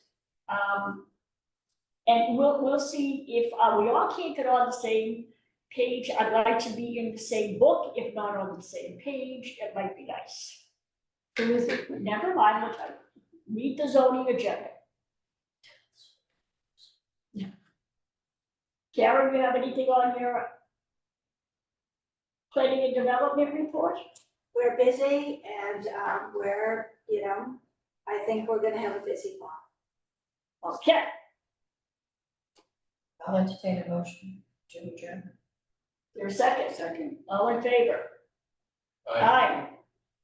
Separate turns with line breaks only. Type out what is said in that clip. Um, and we'll, we'll see if, uh, we all can't get on the same page. I'd like to be in the same book, if not on the same page, it might be nice.
Who is it?
Never mind, I'll tell you. Read the zoning agenda. Karen, you have anything on your planning and development report?
We're busy and, um, we're, you know, I think we're gonna have a busy fall.
Okay,
I'll entertain a motion to adjourn.
your second. Second. All in favor?
Aye.
Aye.